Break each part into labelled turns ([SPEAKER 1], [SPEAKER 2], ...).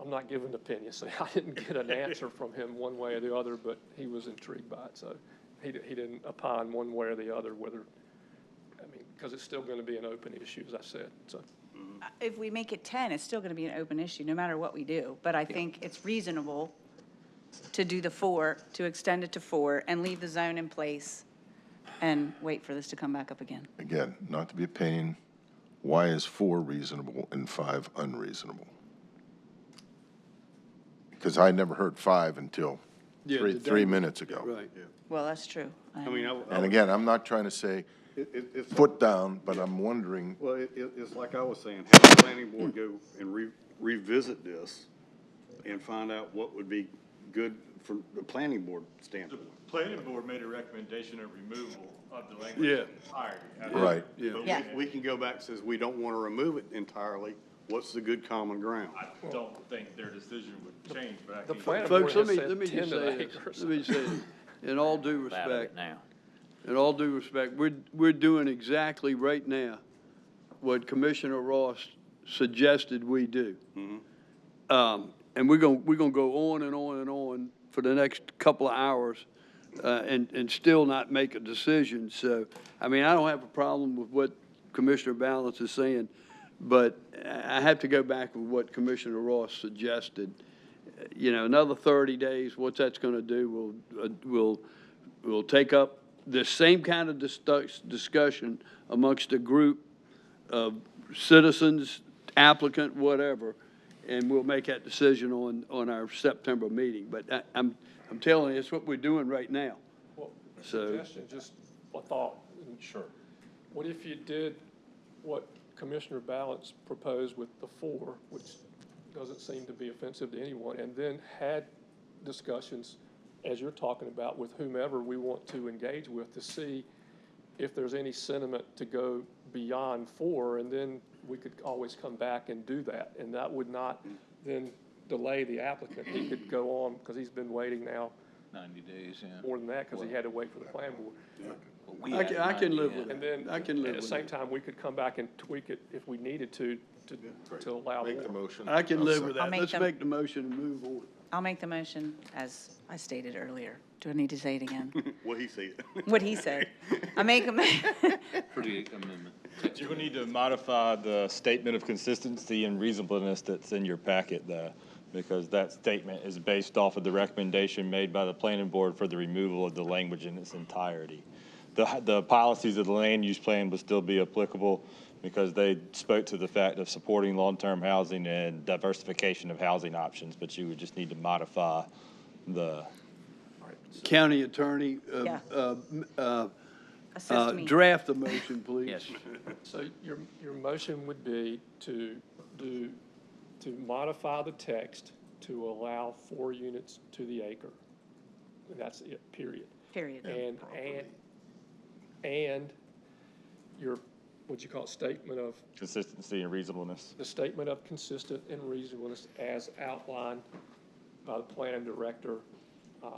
[SPEAKER 1] I'm not giving an opinion, so I didn't get an answer from him one way or the other, but he was intrigued by it, so he, di- he didn't opine one way or the other whether, I mean, because it's still going to be an open issue, as I said, so.
[SPEAKER 2] If we make it 10, it's still going to be an open issue, no matter what we do. But I think it's reasonable to do the four, to extend it to four, and leave the zone in place and wait for this to come back up again.
[SPEAKER 3] Again, not to be a pain, why is four reasonable and five unreasonable? Because I never heard five until
[SPEAKER 4] Yeah,
[SPEAKER 3] three,
[SPEAKER 4] today.
[SPEAKER 3] three minutes ago.
[SPEAKER 4] Right.
[SPEAKER 2] Well, that's true.
[SPEAKER 5] I mean, I, I-
[SPEAKER 3] And again, I'm not trying to say
[SPEAKER 5] it, it- it's,
[SPEAKER 3] foot down, but I'm wondering,
[SPEAKER 5] well, it, it- it's like I was saying, have the planning board go and re, revisit this and find out what would be good from the planning board
[SPEAKER 6] The
[SPEAKER 5] standpoint.
[SPEAKER 6] planning board made a recommendation of removal of the language
[SPEAKER 4] Yeah.
[SPEAKER 6] entirely.
[SPEAKER 3] right,
[SPEAKER 5] But we-
[SPEAKER 2] Yeah.
[SPEAKER 5] We can go back, and says we don't want to remove it entirely, what's the good common ground?
[SPEAKER 6] I don't think their decision would change, but I
[SPEAKER 1] The
[SPEAKER 6] can't.
[SPEAKER 1] planning board
[SPEAKER 4] Folks, let
[SPEAKER 1] has
[SPEAKER 4] me, let
[SPEAKER 1] said
[SPEAKER 4] me
[SPEAKER 1] 10
[SPEAKER 4] just
[SPEAKER 1] to the
[SPEAKER 4] say this,
[SPEAKER 1] acre,
[SPEAKER 4] let
[SPEAKER 1] so.
[SPEAKER 4] me just say, this. in all due
[SPEAKER 7] out of it
[SPEAKER 4] respect,
[SPEAKER 7] now.
[SPEAKER 4] in all due respect, we're, we're doing exactly right now what Commissioner Ross suggested we do. Um, and we're gonna, we're gonna go on and on and on for the next couple of hours, uh, and, and still not make a decision, so, I mean, I don't have a problem with what Commissioner Balance is saying, but I I have to go back with what Commissioner Ross suggested. You know, another thirty days, what that's gonna do, will, uh, will, will take up the same kind of discuss, discussion amongst a group of citizens, applicant, whatever, and we'll make that decision on, on our September meeting. But I, I'm, I'm telling you, it's what we're doing right now.
[SPEAKER 1] Well, a
[SPEAKER 4] So-
[SPEAKER 1] suggestion, just a thought. Sure. What if you did what Commissioner Balance proposed with the four, which doesn't seem to be offensive to anyone, and then had discussions, as you're talking about, with whomever we want to engage with to see if there's any sentiment to go beyond four, and then we could always come back and do that. And that would not then delay the applicant. He could go on, because he's been waiting now
[SPEAKER 7] 90 days, yeah.
[SPEAKER 1] more than that because he had to wait for the plan board.
[SPEAKER 7] But we
[SPEAKER 4] I
[SPEAKER 7] had
[SPEAKER 4] can, I can
[SPEAKER 7] 90
[SPEAKER 4] live
[SPEAKER 7] in.
[SPEAKER 4] with
[SPEAKER 1] And
[SPEAKER 4] it.
[SPEAKER 1] then,
[SPEAKER 4] I can live
[SPEAKER 1] at the
[SPEAKER 4] with
[SPEAKER 1] same
[SPEAKER 4] it.
[SPEAKER 1] time, we could come back and tweak it if we needed to, to, to allow
[SPEAKER 3] make the
[SPEAKER 1] more.
[SPEAKER 3] motion.
[SPEAKER 4] I can live with
[SPEAKER 2] I'll
[SPEAKER 4] that.
[SPEAKER 2] make
[SPEAKER 4] Let's
[SPEAKER 2] them-
[SPEAKER 4] make the motion and move on.
[SPEAKER 2] I'll make the motion as I stated earlier. Do I need to say it again?
[SPEAKER 5] What he said.
[SPEAKER 2] What he said. I make a, mo-
[SPEAKER 7] Pretty amendment.
[SPEAKER 6] You're gonna need to modify the statement of consistency and reasonableness that's in your packet, though, because that statement is based off of the recommendation made by the planning board for the removal of the language in its entirety. The, the policies of the land use plan would still be applicable because they spoke to the fact of supporting long-term housing and diversification of housing options, but you would just need to modify the,
[SPEAKER 4] County attorney, uh,
[SPEAKER 2] Yeah.
[SPEAKER 4] uh, uh, uh,
[SPEAKER 2] assist me.
[SPEAKER 4] draft the motion, please.
[SPEAKER 7] Yes.
[SPEAKER 1] So your, your motion would be to do, to modify the text to allow four units to the acre. And that's it, period.
[SPEAKER 2] Period.
[SPEAKER 1] And, and, and your, what you call it, statement of,
[SPEAKER 6] consistency and reasonableness.
[SPEAKER 1] the statement of consistent and reasonableness as outlined by the planning director, uh,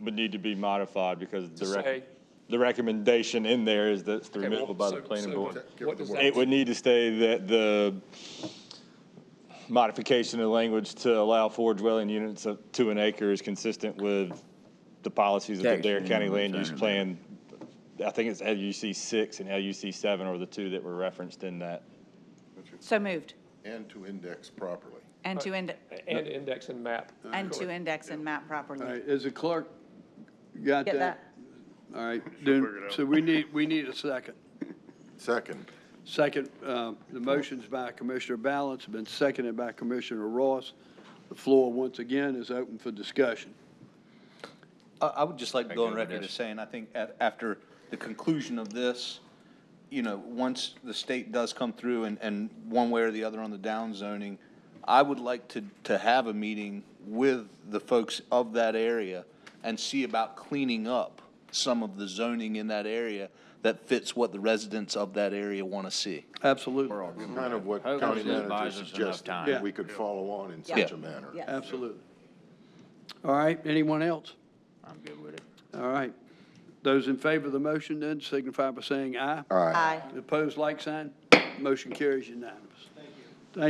[SPEAKER 6] would need to be modified because the
[SPEAKER 1] say-
[SPEAKER 6] rec- the recommendation in there is that it's the
[SPEAKER 1] Okay, well,
[SPEAKER 6] removal by the
[SPEAKER 1] so-
[SPEAKER 6] planning
[SPEAKER 1] so
[SPEAKER 6] board.
[SPEAKER 1] What does
[SPEAKER 6] It
[SPEAKER 1] that,
[SPEAKER 6] would need to stay that the modification of language to allow four dwelling units of to an acre is consistent with the policies of the
[SPEAKER 7] Text,
[SPEAKER 6] Dare County
[SPEAKER 7] yeah,
[SPEAKER 6] Land Use
[SPEAKER 7] text.
[SPEAKER 6] Plan. I think it's LUC six and LUC seven are the two that were referenced in that.
[SPEAKER 2] So moved.
[SPEAKER 3] And to index properly.
[SPEAKER 2] And to end,
[SPEAKER 1] and index and map.
[SPEAKER 2] and to index and map properly.
[SPEAKER 4] All right, is the clerk, got
[SPEAKER 2] Get
[SPEAKER 4] that? All right, then, so we need, we need a second.
[SPEAKER 3] Second,
[SPEAKER 4] Second, uh, the motion's by Commissioner Balance, been seconded by Commissioner Ross. The floor, once again, is open for discussion.
[SPEAKER 8] I, I would just like to go
[SPEAKER 7] Thank
[SPEAKER 8] on
[SPEAKER 7] you,
[SPEAKER 8] record
[SPEAKER 7] Vanessa.
[SPEAKER 8] as saying, I think at, after the conclusion of this, you know, once the state does come through and, and one way or the other on the down zoning, I would like to, to have a meeting with the folks of that area and see about cleaning up some of the zoning in that area that fits what the residents of that area want to see.
[SPEAKER 4] Absolutely,
[SPEAKER 3] kind of what
[SPEAKER 7] Hopefully
[SPEAKER 3] county
[SPEAKER 7] it
[SPEAKER 3] manager
[SPEAKER 7] buys us enough
[SPEAKER 3] suggested,
[SPEAKER 7] time.
[SPEAKER 4] Yeah.
[SPEAKER 3] that we could follow on in
[SPEAKER 2] Yeah.
[SPEAKER 3] such a manner.
[SPEAKER 2] Yes.
[SPEAKER 4] absolutely. All right, anyone else?
[SPEAKER 7] I'm good with it.
[SPEAKER 4] All right. Those in favor of the motion then signify by saying aye.
[SPEAKER 3] All right.
[SPEAKER 2] Aye.
[SPEAKER 4] Opposed, like sign. Motion carries unanimous.